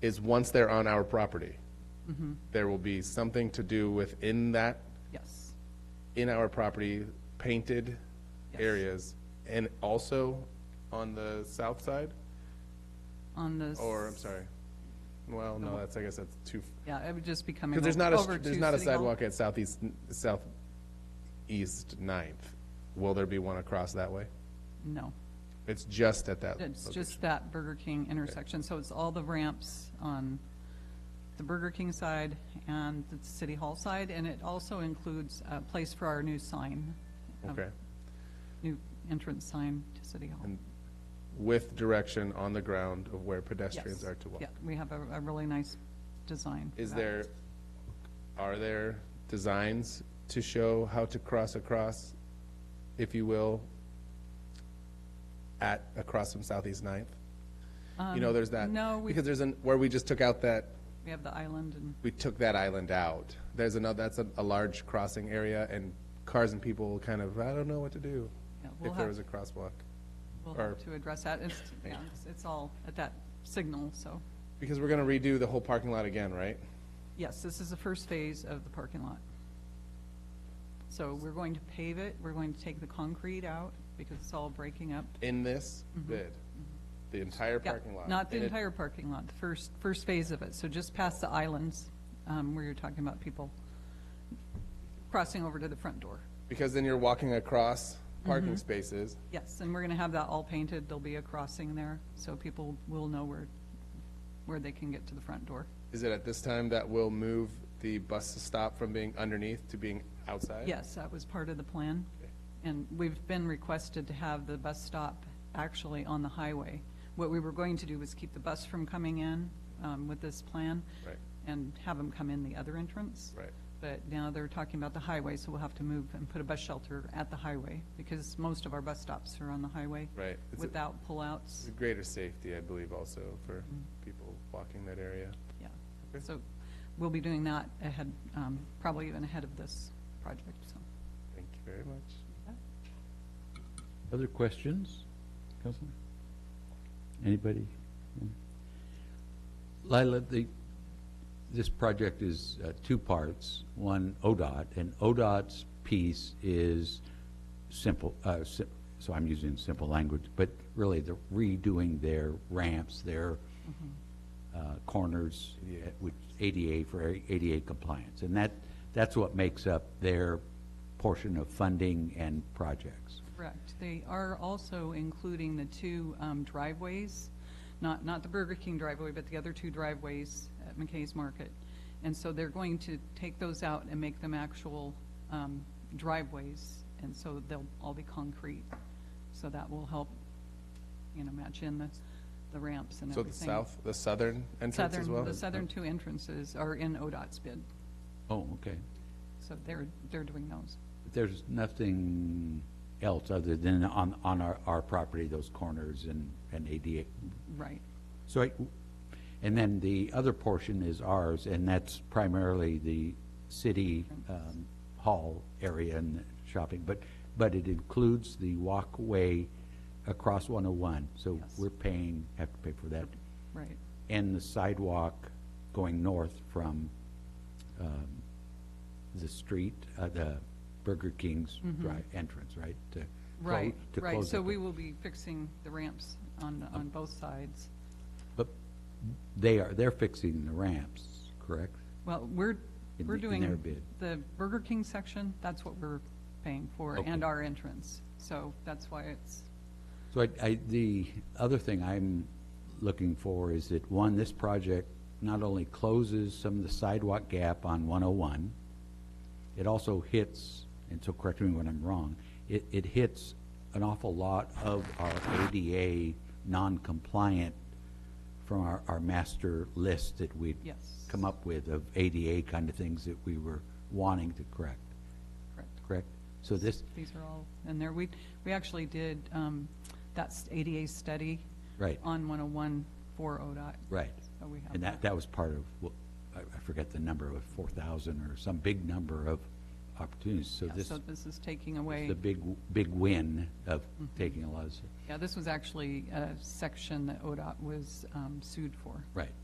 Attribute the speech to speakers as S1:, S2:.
S1: is once they're on our property,
S2: Mm-hmm.
S1: there will be something to do within that,
S2: Yes,
S1: in our property, painted
S2: Yes.
S1: areas, and also on the south side,
S2: on the. s-
S1: or, I'm sorry, well, no, that's, I guess that's too,
S2: Yeah, it would just be coming
S1: because there's
S2: o-
S1: not
S2: over
S1: a,
S2: to
S1: there's not a
S2: City Hall.
S1: sidewalk at southeast, southeast Ninth. Will there be one across that way?
S2: No,
S1: It's just at that.
S2: it's
S1: location.
S2: just that Burger King intersection, so it's all the ramps on the Burger King side and the City Hall side, and it also includes a place for our new sign. a
S1: Okay.
S2: New entrance sign to City Hall.
S1: With direction on the ground of where pedestrians
S2: Yes.
S1: are to walk.
S2: Yeah, we have a, a really nice design. for
S1: Is
S2: that.
S1: there, are there designs to show how to cross across, if you will, at, across from Southeast Ninth? You know, there's that.
S2: Um, no, we-
S1: Because there's an, where we just took out that,
S2: We have the island and,
S1: we took that island out. There's another, that's a, a large crossing area and cars and people kind of, I don't know what to do
S2: Yeah, we'll
S1: if there
S2: have-
S1: was a crosswalk.
S2: we'll
S1: Or-
S2: have to address that. It's, yeah, it's- it's all at that signal, so.
S1: Because we're gonna redo the whole parking lot again, right?
S2: Yes, this is the first phase of the parking lot. So we're going to pave it, we're going to take the concrete out because it's all breaking up.
S1: In this bid, the entire
S2: Mm-hmm. Yeah,
S1: parking lot.
S2: Not the
S1: And it-
S2: entire parking lot, the first, first phase of it, so just past the islands, um, where you're talking about people crossing over to the front door.
S1: Because then you're walking across
S2: Mm-hmm.
S1: parking spaces.
S2: Yes, and we're gonna have that all painted, there'll be a crossing there, so people will know where, where they can get to the front door.
S1: Is it at this time that we'll move the bus stop from being underneath to being outside?
S2: Yes, that was part of the plan. And we've been requested to have the bus stop actually on the highway. What we were going to do was keep the bus from coming in um, with this plan.
S1: Right.
S2: And have them come in the other entrance.
S1: Right.
S2: But now they're talking about the highway, so we'll have to move and put a bus shelter at the highway because most of our bus stops are on the highway.
S1: Right. It's a-
S2: Without pullouts.
S1: It's a greater safety, I believe, also for
S2: Mm-hmm.
S1: people walking that area.
S2: Yeah,
S1: Okay.
S2: so we'll be doing that ahead, um, probably even ahead of this project, so.
S1: Thank you very much.
S3: Other questions, Councilman? Anybody? Lila, the, this project is uh, two parts, one ODOT, and ODOT's piece is simple, uh, si- so I'm using simple language, but really they're redoing their ramps, their uh, corners, uh, which ADA for ADA compliance. And that, that's what makes up their portion of funding and projects.
S2: Correct. They are also including the two um, driveways, not, not the Burger King driveway, but the other two driveways at McKay's Market. And so they're going to take those out and make them actual um, driveways, and so they'll all be concrete. So that will help, you know, match in the, the ramps and
S1: So the
S2: everything.
S1: south, the southern entrance as
S2: Southern-
S1: well?
S2: The southern two entrances are in ODOT's bid,
S3: Oh, okay.
S2: so they're, they're doing those.
S3: But There's nothing else other than on, on our, our property, those corners and, and ADA.
S2: Right,
S3: So I, and then the other portion is ours, and that's primarily the city, um, hall area and shopping. But, but it includes the walkway across one oh one, so
S2: Yes.
S3: we're paying, have to pay for that.
S2: right.
S3: And the sidewalk going north from, um, the street, uh, the Burger King's drive entrance, right? To clo-
S2: Mm-hmm. Right,
S3: to
S2: right,
S3: close
S2: so
S3: it.
S2: we will be fixing the ramps on, on both sides.
S3: But they are, they're fixing the ramps, correct?
S2: Well, we're,
S3: In
S2: we're
S3: the- in their
S2: doing
S3: bid.
S2: the Burger King section, that's what we're paying for,
S3: Okay.
S2: and our entrance. So that's why it's,
S3: So I, I, the other thing I'm looking for is that, one, this project not only closes some of the sidewalk gap on one oh one, it also hits, and so correct me when I'm wrong, it, it hits an awful lot of our ADA non-compliant from our, our master list that we'd
S2: Yes.
S3: come up with of ADA kind of things that we were wanting to correct,
S2: correct.
S3: correct? So this,
S2: These are all in there. We, we actually did, um, that's ADA study.
S3: Right.
S2: On 101 for ODOT.
S3: Right.
S2: So we have
S3: And that, that was part of, what- I I forget the number, of 4,000 or some big number of opportunities. So
S2: Yeah,
S3: this
S2: So
S3: is
S2: this is taking away.
S3: the big, big win of
S2: Mm-hmm.
S3: taking a lot of,
S2: Yeah, this was actually a section that ODOT was um, sued for.
S3: right.